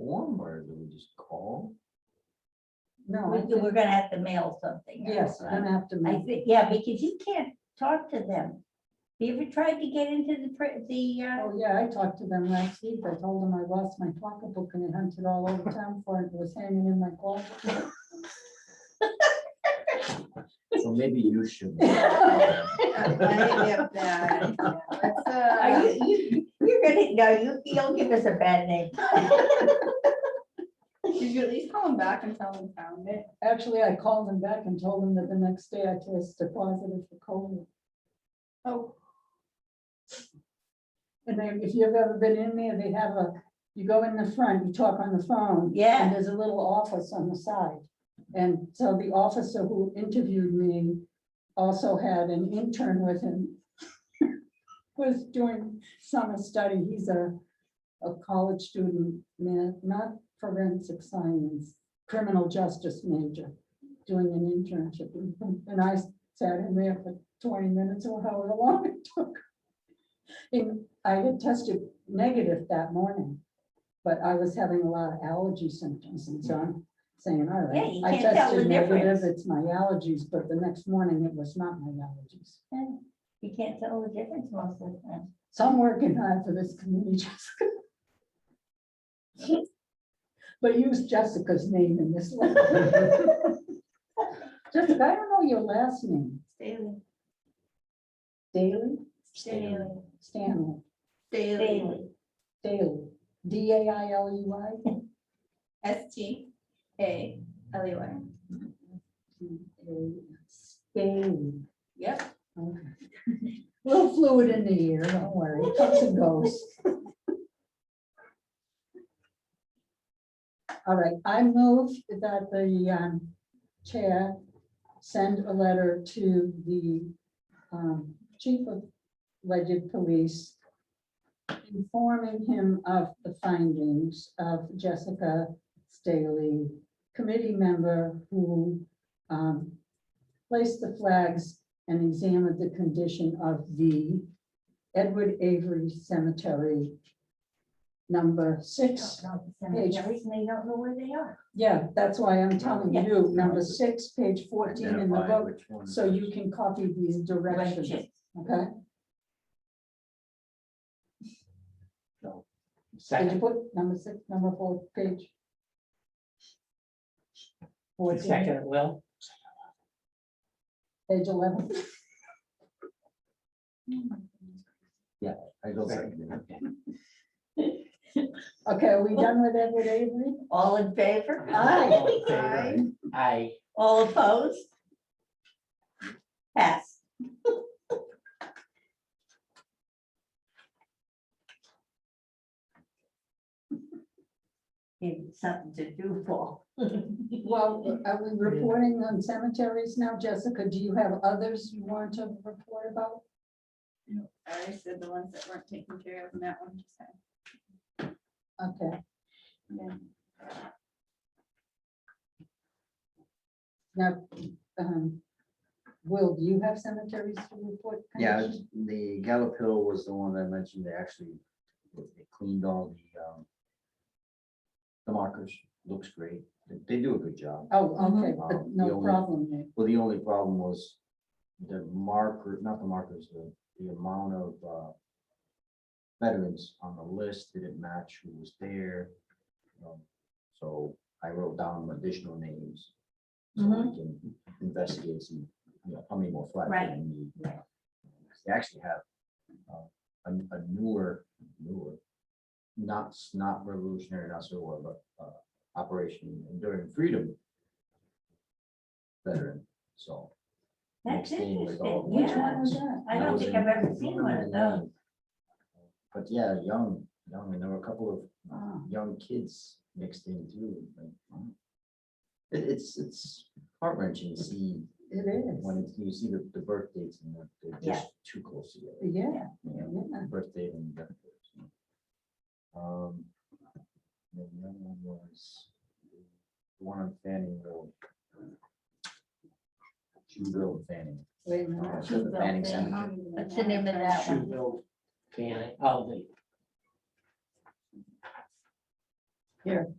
form or do we just call? No, I We- think- We're gonna have to mail something. out, yes, we're right? gonna have to I make, think, yeah, because you can't talk to them. You ever tried to get into the, pri- the, uh, oh, yeah, I talked to them last week, I told them I lost my pocketbook and I hunted all over town for it, It was hanging in my closet. So maybe you should. Oh, are Are you, you, you're gonna, no, you, you'll give us a bad name. Did you at least call him back and tell him found it? Actually, I called them back and told them that the next day I tested positive for COVID. Oh, And then if you've ever been in there, they have a, you go in the front, you talk on the phone. Yeah. And there's a little office on the side. And so the officer who interviewed me also had an intern with him. Was doing summer study. He's a, a college student, ma- not forensic science, criminal justice major, doing an internship. And I sat in there for twenty minutes or however long it took. And I had tested negative that morning, but I was having a lot of allergy symptoms and so I'm saying, all Yeah, you right. I can't tell the tested negative, difference. It's my allergies, but the next morning it was not my allergies. You can't tell the difference most of the time. So I'm working hard for this community, Jessica. But use Jessica's name in this letter. Jessica, I don't know your last name, Daily. Daily, Daily. Stanley, Daily. Daily. Daily, D A I L E Y. S T A L E Y. Daily, Yep. okay. Little fluid in the ear, don't worry, it comes and goes. All right, I move that the um, chair send a letter to the um, chief of legend police informing him of the findings of Jessica Staley, committee member who um, placed the flags and examined the condition of the Edward Avery Cemetery, number six. They don't know where they are. Yeah, that's why I'm telling Yeah. you, number six, page fourteen in the Identify book, which one. so you can copy these directions, Directions. okay? Did you Second, put number six, number four, page? Fourteen, second, Will, page eleven, I go second. it. okay, are we done with Edward Avery? All in favor? Aye. Hi. I, All opposed? Pass. Give you something to do, Paul. Well, are we reporting on cemeteries now, Jessica, do you have others you want to report about? I already said the ones that weren't taken care of and that one just had. Okay, yeah. now, um, Will, do you have cemeteries to report? Yeah, Connection? it's- the Gallup Hill was the one I mentioned, they actually they cleaned all the um. The markers, looks great, They- they do a good job. Oh, okay, Mhm. but The no only- problem there. Well, the only problem was the marker, not the markers, the, the amount of, uh, veterans on the list didn't match who was there. um, So I wrote down additional names. So I can investigate some, you know, how many more flags Right. I need. Right. They actually have, uh, a, a newer, newer, not, s- not revolutionary, not so war, but, uh, Operation Enduring Freedom veteran, so. That's mixed in with interesting, all the Which yeah. one veterans. was that? I That don't was think in- I've ever seen one of those. But yeah, young, young, and there were a couple Ah, of young kids mixed in too. like, wow. It, it's, it's heart wrenching to see It is, when it's- you see the, the birth dates and that they're Yeah. just too close together. yeah, you know? yeah. birthday and death. date, so. Um, and The other one was the one on Fanning Road. Judo Fanning. Wait a uh, minute. so the Judo Fanning Fanning. Center. What's the name of that one? Shueville, Fanning, oh, the